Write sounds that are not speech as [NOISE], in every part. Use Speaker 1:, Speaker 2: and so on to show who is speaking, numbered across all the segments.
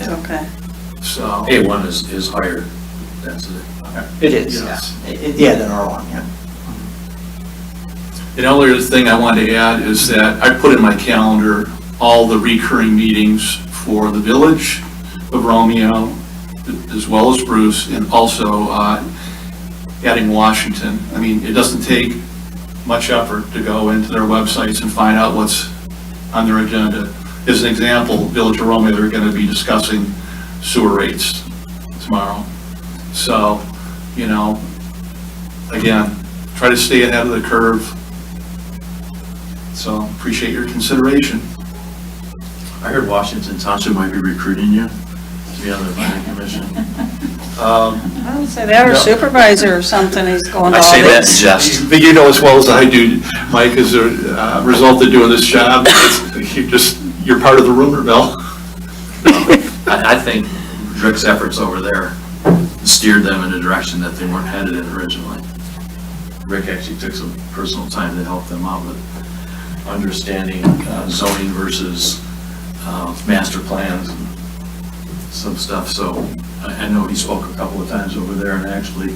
Speaker 1: Okay.
Speaker 2: so.
Speaker 3: A1 is, is higher density.
Speaker 4: It is, yeah.
Speaker 2: Yes.
Speaker 4: It- it- Yeah, than R1, yeah.
Speaker 2: The only other thing I wanted to add is that I put in my calendar all the recurring meetings for the Village of Romeo, as well as Bruce, and also uh, adding Washington. I mean, it doesn't take much effort to go into their websites and find out what's on their agenda. As an example, Village of Romeo, they're going to be discussing sewer rates tomorrow. So, you know, again, try to stay ahead of the curve. So appreciate your consideration.
Speaker 3: I heard Washington Township might be recruiting you to be on the planning commission.
Speaker 2: Um,
Speaker 1: I would say that or
Speaker 2: No.
Speaker 1: supervisor or something, he's going to
Speaker 3: I
Speaker 1: all
Speaker 3: say that in
Speaker 1: these.
Speaker 3: jest.
Speaker 2: But you know as well as I do, Mike, as a uh, result of doing this job, it's- you just, you're part of the rumor mill.
Speaker 3: I, I think Rick's efforts over there steered them in a direction that they weren't headed in originally. Rick actually took some personal time to help them out with understanding uh, zoning versus uh, master plans and some stuff. So I, I know he spoke a couple of times over there and actually,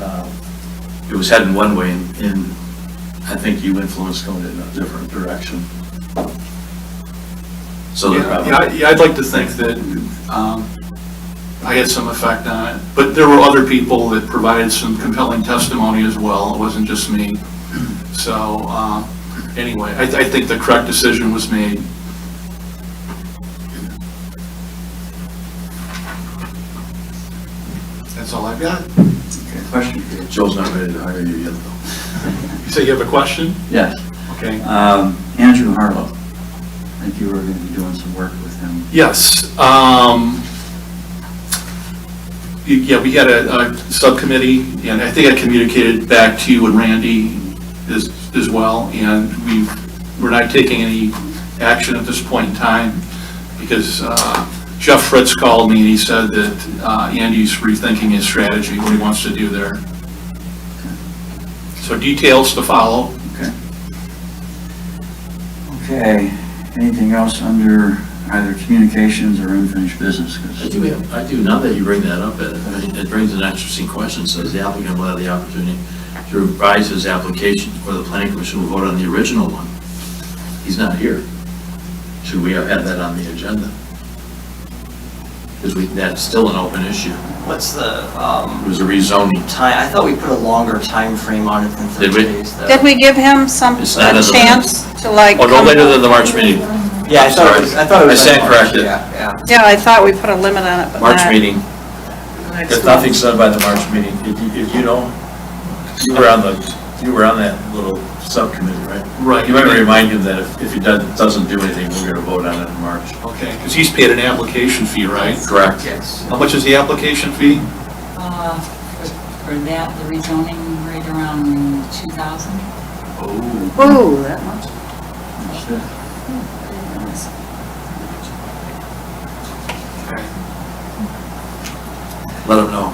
Speaker 3: uh, it was heading one way and, and I think you influenced going in a different direction. So they're
Speaker 2: Yeah,
Speaker 3: probably.
Speaker 2: yeah, I- yeah, I'd like to think that um, I had some effect on it, but there were other people that provided some compelling testimony as well, it wasn't just me. So, uh, anyway, I, I think the correct decision was made. That's all I've got.
Speaker 5: Question.
Speaker 3: Joe's not ready to hire you yet,
Speaker 2: You say you have a question?
Speaker 5: [LAUGHS] Yes,
Speaker 2: Okay.
Speaker 5: um, Andrew Harlow. I think you were going to be doing some work with him.
Speaker 2: Yes, um, y- yeah, we had a, a subcommittee, and I think I communicated back to you and Randy as, as well, and we, we're not taking any action at this point in time, because, uh, Jeff Fritz called me and he said that, uh, Andy's rethinking his strategy, what he wants to do there. So details to follow.
Speaker 5: Okay. Okay, anything else under either communications or unfinished business? 'Cause-
Speaker 3: I do, have- I do, now that you bring that up, it it brings an interesting question, says the applicant will have the opportunity to revise his application, or the planning commission will vote on the original one. He's not here. Should we have had that on the agenda? Because we, that's still an open issue.
Speaker 4: What's the,
Speaker 3: It
Speaker 4: um,
Speaker 3: was a rezoning.
Speaker 4: time, I thought we put a longer time frame on it than
Speaker 3: Did
Speaker 4: 30
Speaker 3: we?
Speaker 4: days. though.
Speaker 1: Did we give him some,
Speaker 3: It's not
Speaker 1: a
Speaker 3: in the
Speaker 1: chance to like?
Speaker 3: Oh, no
Speaker 1: come-
Speaker 3: later than the March meeting,
Speaker 4: Yeah, I thought, it was- I thought it was.
Speaker 3: I stand
Speaker 4: like March,
Speaker 3: corrected.
Speaker 4: Yeah, yeah.
Speaker 1: Yeah, I thought we put a limit on it, but
Speaker 3: March
Speaker 1: not.
Speaker 3: meeting. If nothing's said by the March meeting, if you, if you don't, you were on the, you were on that little subcommittee, right?
Speaker 2: Right.
Speaker 3: You might want to remind him that if, if he doesn't, doesn't do anything, we're gonna vote on it in March.
Speaker 2: Okay, because he's paid an application fee, right?
Speaker 3: Correct.
Speaker 4: Yes.
Speaker 2: How much is the application fee?
Speaker 6: Uh, for- For that, the rezoning right around 2,000?
Speaker 2: Oh.
Speaker 1: Ooh, that much.
Speaker 5: Understood.
Speaker 3: Let him know,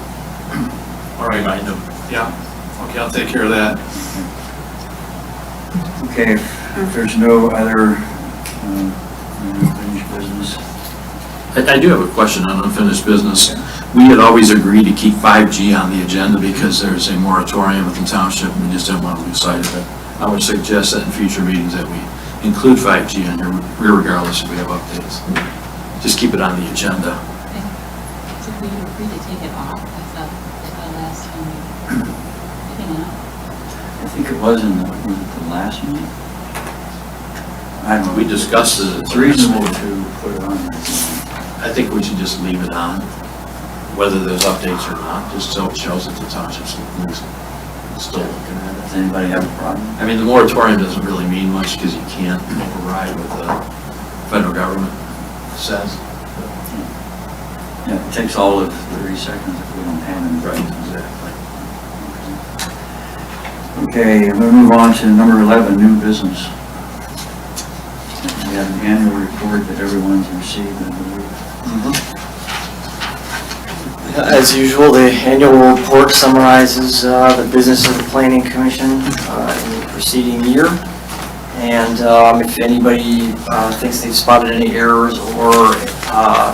Speaker 2: All right,
Speaker 3: remind him.
Speaker 2: yeah, okay, I'll take care of that.
Speaker 5: Okay, if there's no other um, unfinished business,
Speaker 3: I, I do have a question on unfinished business. We had always agreed to keep 5G on the agenda because there's a moratorium with the township and we just didn't want to lose sight of it. I would suggest that in future meetings that we include 5G on here regardless if we have updates. Just keep it on the agenda.
Speaker 6: Did we agree to take it off? I thought, I thought last time we, um, I think not.
Speaker 5: I think it was in the, was it the last meeting? I don't know.
Speaker 3: We discussed it.
Speaker 5: It's reasonable to put it on. there.
Speaker 3: I think we should just leave it on, whether there's updates or not, just so it shows that the township's still looking at it.
Speaker 5: Does anybody have a problem?
Speaker 3: I mean, the moratorium doesn't really mean much because you can't override what the federal government says.
Speaker 5: Yeah, it takes all of 30 seconds if we don't have any.
Speaker 3: exactly.
Speaker 5: Okay, we'll move on to number 11, new business. We have an annual report that everyone's received, I believe.
Speaker 4: As usual, the annual report summarizes uh, the business of the planning commission uh, in the preceding year. And um, if anybody uh, thinks they've spotted any errors or uh,